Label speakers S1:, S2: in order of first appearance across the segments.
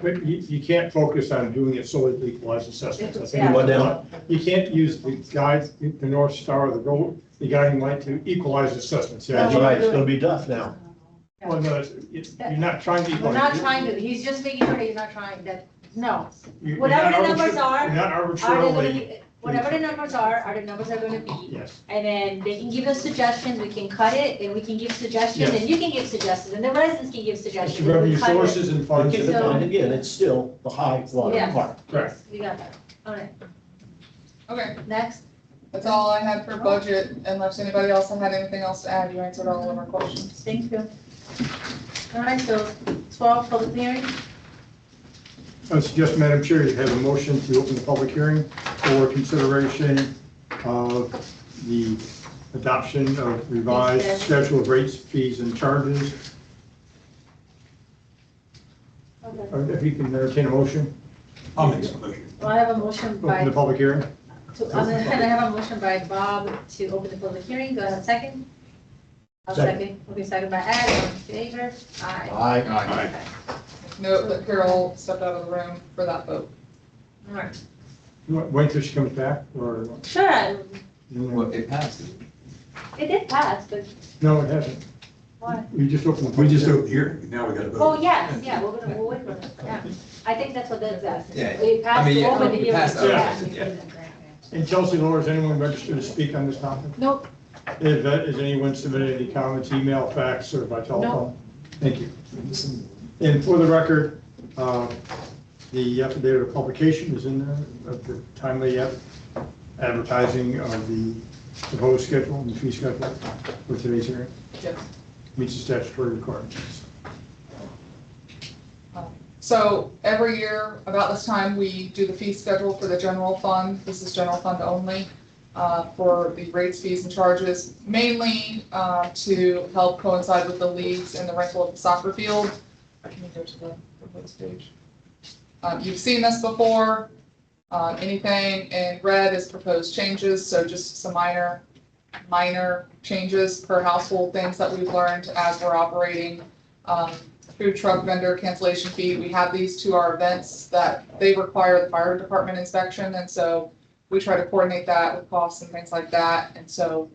S1: But you, you can't focus on doing it solely with equalized assessments. I think
S2: Yeah.
S1: that's not- You can't use the guides, the the North Star, the goal, the guiding light to equalize assessments. Yeah,
S2: No,
S1: you're right.
S2: do
S3: it's
S2: it.
S3: gonna be tough now.
S1: Well, no, it's- it's- you're not trying to.
S2: We're
S1: equalize.
S2: not trying to, he's just being here, he's not trying that, no.
S1: You- you're
S2: Whatever
S1: not
S2: the numbers
S1: arbitra-
S2: are,
S1: You're not
S2: Are they
S1: arbitrarily,
S2: gonna- Whatever the numbers are, are the numbers are gonna be,
S1: yes,
S2: and then they can give us suggestions, we can cut it, and we can give suggestions, and you can give suggestions, and the residents can give
S1: it's
S2: suggestions.
S1: your
S2: and we
S1: revenue
S2: cut it.
S1: sources and
S3: But
S1: funds.
S3: keep in mind, again, it's still the high water
S2: Yes.
S3: mark.
S1: Correct.
S2: We got that, all right,
S4: Okay,
S2: next,
S4: that's all I had for budget, unless anybody else had anything else to add, you answered all of our questions.
S2: thank you. All right, so twelve, public hearing,
S1: I suggest, Madam Chair, you have a motion to open the public hearing for consideration of the adoption of revised schedule of rates, fees, and charges.
S2: okay,
S1: Uh, If you can entertain a motion,
S5: I'll make some motion.
S2: well, I have a motion by,
S1: open Oh, the public hearing.
S2: to- I'm gonna, um, I have a motion by Bob to open the public hearing, do I have a second? I'll
S3: Second.
S2: second, okay, second by Ed, all in favor, aye.
S3: Aye.
S2: Okay.
S4: Note that Carol stepped out of the room for that vote.
S2: All right,
S1: Wait till she comes back, or,
S2: sure,
S1: no,
S5: Well, it passes.
S2: it did pass, but
S1: it hasn't.
S2: why?
S1: We just opened. the
S5: We
S1: public
S5: just
S1: hearing.
S5: opened here, now we gotta vote.
S2: Oh, yes, yeah, we're gonna, we'll wait for it, yeah. I think that's what that says.
S5: Yeah.
S2: We
S5: I
S2: passed
S5: mean,
S2: to
S5: yeah,
S2: open the
S5: we
S2: hearing.
S5: passed,
S1: okay,
S2: Yeah.
S1: And Chelsea, Laura, is anyone registered to speak on this topic?
S2: Nope.
S1: If, uh, Has anyone submitted any comments, email, fax, or by telephone? Thank you. And for the record, uh, the affidavit of publication is in there, of the timely ad- advertising of the proposed schedule and the fee schedule for today's hearing,
S4: Yes.
S1: meets the statutory requirements.
S4: So every year, about this time, we do the fee schedule for the general fund. This is general fund only uh, for the rates, fees, and charges, mainly uh, to help coincide with the leagues and the rental of the soccer field. Can you go to the proposed page? Um, You've seen this before. Um, Anything in red is proposed changes, so just some minor, minor changes per household, things that we've learned as we're operating. Um, food truck vendor cancellation fee, we have these to our events that they require the fire department inspection, and so we try to coordinate that with costs and things like that, and so,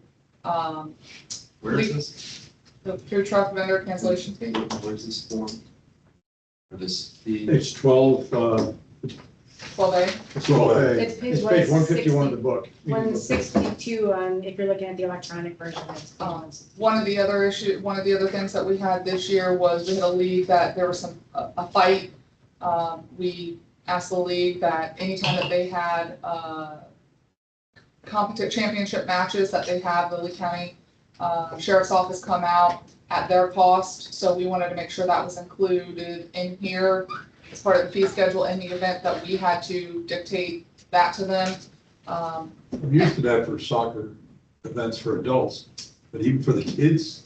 S4: um,
S5: Where is this?
S4: the food truck vendor cancellation fee,
S5: Where's this form? Or this fee?
S1: It's 12, uh,
S4: twelve A,
S1: it's
S6: uh,
S1: 12A.
S7: It's page
S1: It's page 151 of the book.
S7: One sixty-two on, if you're looking at the electronic version, it's.
S4: Um, One of the other issue, one of the other things that we had this year was we had a league that there was some, a a fight. Um, we asked the league that anytime that they had, uh, competitive championship matches that they have, the Lee County, uh, Sheriff's Office come out at their cost. So we wanted to make sure that was included in here as part of the fee schedule in the event that we had to dictate that to them. Um,
S6: I'm used to that for soccer events for adults, but even for the kids,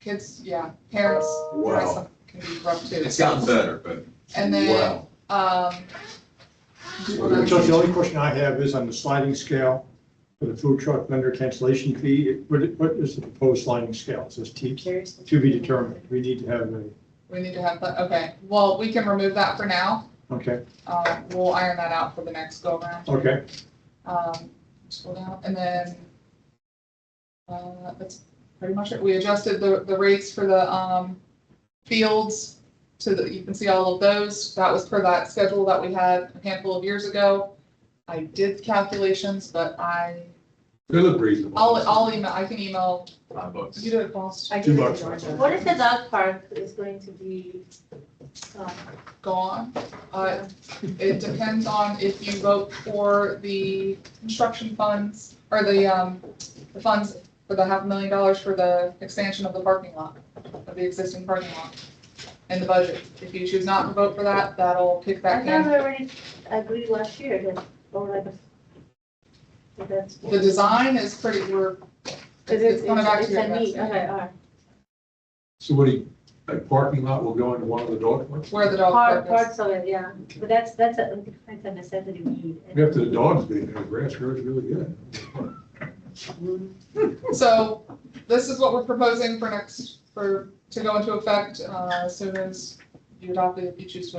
S4: kids, yeah, parents, parents
S6: wow.
S4: can be rough too.
S5: It's gotten better, but
S4: And then,
S5: wow.
S4: um,
S1: Chelsea, the only question I have is on the sliding scale for the food truck vendor cancellation fee, it- what, what is the proposed sliding scale? It says T,
S7: Curious.
S1: to be determined. We need to have a,
S4: we need to have that, okay, well, we can remove that for now.
S1: okay,
S4: Uh, we'll iron that out for the next go around.
S1: okay.
S4: Um, scroll down, and then, uh, that's pretty much it. We adjusted the, the rates for the, um, fields to the, you can see all of those. That was per that schedule that we had a handful of years ago. I did calculations, but I,
S6: They look reasonable.
S4: I'll, I'll email, I can email,
S5: Five bucks.
S4: you did it, boss,
S7: I give
S6: Two
S7: it
S6: bucks.
S7: to Georgia.
S2: What if the dog park is going to be? uh,
S4: go on. Uh, It depends on if you vote for the construction funds, or the, um, the funds for the half a million dollars for the expansion of the parking lot, of the existing parking lot, and the budget. If you choose not to vote for that, that'll kick
S2: I
S4: back
S2: thought
S4: in.
S2: we already agreed last year that, or like. a- that That's.
S4: The design is pretty, we're,
S2: Is
S4: it's
S2: it,
S4: coming back to
S2: it's
S4: your
S2: a need,
S4: investment.
S2: okay, all right.
S6: So what do you, a parking lot will go into one of the dog parks?
S4: where the dog
S2: Part,
S4: park is.
S2: parts of it, yeah, but that's, that's a, that's a necessity we need.
S6: After the dogs being there, grass grows really good.
S4: So this is what we're proposing for next, for, to go into effect, uh, as soon as you adopt it, if you choose to